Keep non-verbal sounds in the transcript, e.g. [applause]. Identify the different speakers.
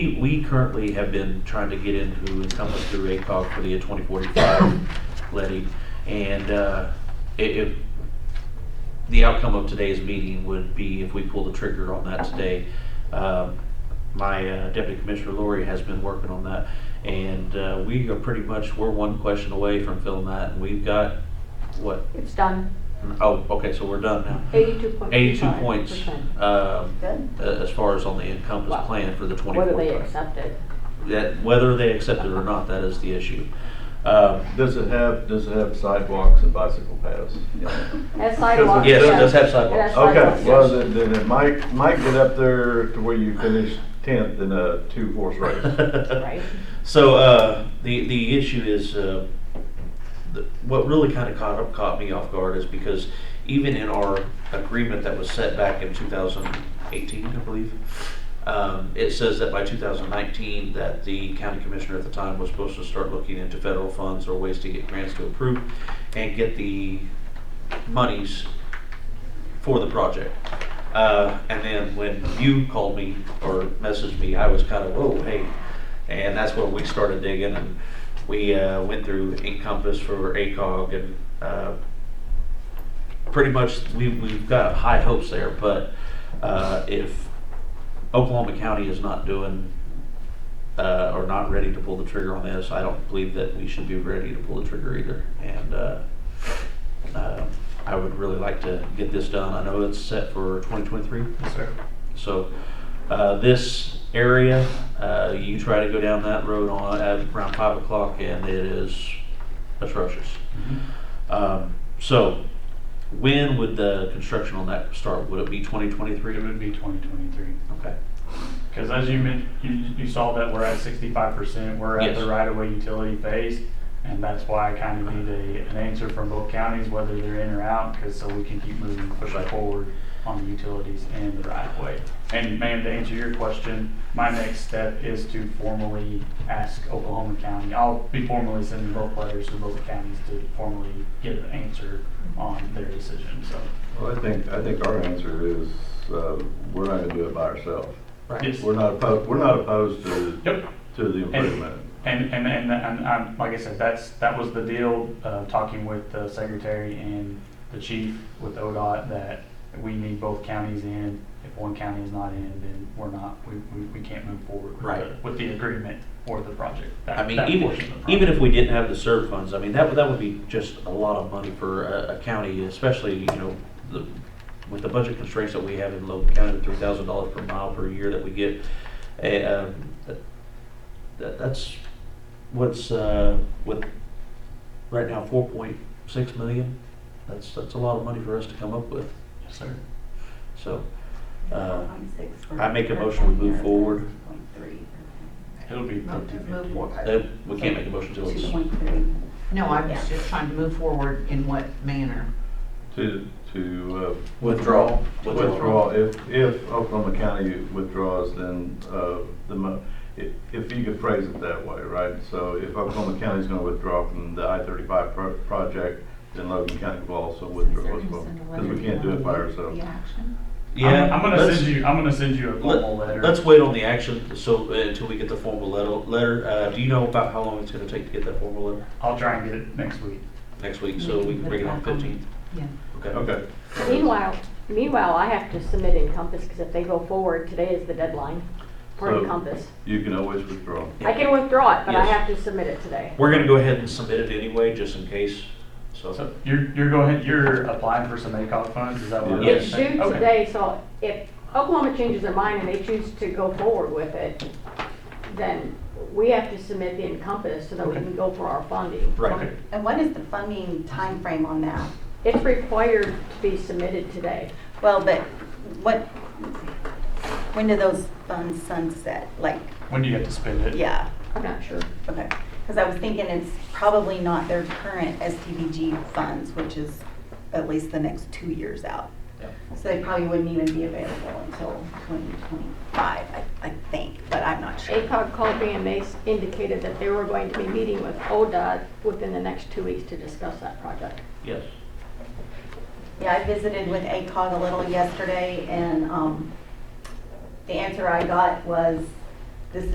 Speaker 1: We currently have been trying to get into Encompass through ACOG for the 2045 levy, and uh, i- if, the outcome of today's meeting would be if we pull the trigger on that today. Um, My uh, Deputy Commissioner Lori has been working on that, and uh, we are pretty much, we're one question away from filling that, and we've got, what,
Speaker 2: It's done,
Speaker 1: oh, okay, so we're done now.
Speaker 2: eighty-two point.
Speaker 1: 82 points um,
Speaker 2: Good.
Speaker 1: a- as far as on the Encompass
Speaker 2: Wow.
Speaker 1: plan for the 2045
Speaker 2: Whether they accept it.
Speaker 1: that whether they accept it or not, that is the issue. Um,
Speaker 3: Does it have, does it have sidewalks and bicycle paths?
Speaker 2: Has sidewalks.
Speaker 1: Yes, it
Speaker 2: yeah.
Speaker 1: does have sidewalks.
Speaker 2: Yes.
Speaker 3: Okay,
Speaker 2: Sidewalks,
Speaker 3: well,
Speaker 2: yes.
Speaker 3: then, then it might, might get up there to where you finish tenth in a two-horse race.
Speaker 2: Right.
Speaker 1: [laughs] So uh, the the issue is uh, the, what really kind of caught up caught me off guard is because even in our agreement that was set back in 2018, I believe, um, it says that by 2019 that the county commissioner at the time was supposed to start looking into federal funds or ways to get grants to approve and get the monies for the project. Uh, and then when you called me or messaged me, I was kind of, whoa, hey. And that's when we started digging and we uh, went through Encompass for ACOG and uh, pretty much we, we've got high hopes there. But uh, if Oklahoma County is not doing uh, or not ready to pull the trigger on this, I don't believe that we should be ready to pull the trigger either. And uh, uh, I would really like to get this done. I know it's set for 2023. So uh, this area, uh, you try to go down that road on, at around 5 o'clock and it is atrocious. Um, So when would the construction on that start? Would it be 2023?
Speaker 4: It would be 2023.
Speaker 1: Okay.
Speaker 4: Because as you men- you, you saw that we're at 65%, we're at the
Speaker 1: Yes.
Speaker 4: right-of-way utility phase, and that's why I kind of need a, an answer from both counties, whether they're in or out, because so we can keep moving, pushing
Speaker 1: Right.
Speaker 4: forward on the utilities and the right-of-way. And ma'am, to answer your question, my next step is to formally ask Oklahoma County, I'll be formally sending both letters to both counties to formally get an answer on their decision, so.
Speaker 3: [laughs] Well, I think, I think our answer is, uh, we're not gonna do it by ourselves.
Speaker 4: Yes.
Speaker 3: We're not opposed, we're not opposed to,
Speaker 4: Yep.
Speaker 3: to the improvement.
Speaker 4: And, and, and, and, um, like I said, that's, that was the deal, uh, talking with the secretary and the chief with ODOT, that we need both counties in. If one county is not in, then we're not, we, we, we can't move forward with the,
Speaker 1: Right.
Speaker 4: with the agreement or the project. that-
Speaker 1: I mean,
Speaker 4: that
Speaker 1: even,
Speaker 4: portion of the
Speaker 1: even if
Speaker 4: project.
Speaker 1: we didn't have the SERB funds, I mean, that, would- that would be just a lot of money for a, a county, especially, you know, the, with the budget constraints that we have in Logan County, three thousand dollars per mile per year that we get, eh, um, that, that's what's, uh, with, right now, four point six million, that's, that's a lot of money for us to come up with,
Speaker 4: Yes, sir.
Speaker 1: so, uh, I make a motion to move forward.
Speaker 4: It'll be
Speaker 5: Move to move
Speaker 4: 50-50.
Speaker 5: forward.
Speaker 1: eh, we can't make a motion till it's.
Speaker 5: Two point three. No, I was just trying to move forward in what manner?
Speaker 3: To, to, uh,
Speaker 1: Withdrawal.
Speaker 3: Withdrawal, if, if Oklahoma County withdraws, then, uh, the mo, if, if you could phrase it that way, right? So if Oklahoma County's gonna withdraw from the I thirty-five pro- project, then Logan County will also withdraw as well. Cause we can't do it by ourselves.
Speaker 1: Yeah.
Speaker 4: I'm, I'm gonna
Speaker 1: let's-
Speaker 4: send you, I'm gonna send you a formal letter.
Speaker 1: Let, us wait on the action, so, uh, until we get the formal letter, letter, uh, do you know about how long it's gonna take to get that formal letter?
Speaker 4: I'll try and get it next week.
Speaker 1: Next week, so we can bring it on fifteenth,
Speaker 5: Yeah.
Speaker 1: okay?
Speaker 3: Okay,
Speaker 2: Meanwhile, meanwhile, I have to submit Encompass, because if they go forward, today is the deadline for
Speaker 3: So-
Speaker 2: Encompass.
Speaker 3: you can always withdraw.
Speaker 2: I can withdraw it, but I
Speaker 1: Yes.
Speaker 2: have to submit it today.
Speaker 1: We're gonna go ahead and submit it anyway, just in case, so,
Speaker 4: So you're, you're going, you're applying for some ACOG funds, is that what?
Speaker 3: Yeah.
Speaker 2: It's
Speaker 4: you're
Speaker 2: due
Speaker 4: saying? Okay.
Speaker 2: today, so if Oklahoma changes their mind and they choose to go forward with it, then we have to submit the Encompass so that we
Speaker 4: Okay.
Speaker 2: can go for our funding.
Speaker 1: right,
Speaker 6: And what is the funding time frame on that?
Speaker 2: It's required to be submitted today.
Speaker 6: Well, but what, when do those funds sunset? Like,
Speaker 4: When do you have to spend it?
Speaker 6: yeah,
Speaker 2: I'm not sure.
Speaker 6: okay. Because I was thinking it's probably not their current SDBG funds, which is at least the next two years out.
Speaker 1: Yeah.
Speaker 6: So they probably wouldn't even be available until 2025, I I think, but I'm not sure.
Speaker 2: ACOG called me and they s- indicated that they were going to be meeting with ODOT within the next two weeks to discuss that project.
Speaker 1: yes.
Speaker 6: Yeah, I visited with ACOG a little yesterday, and um, the answer I got was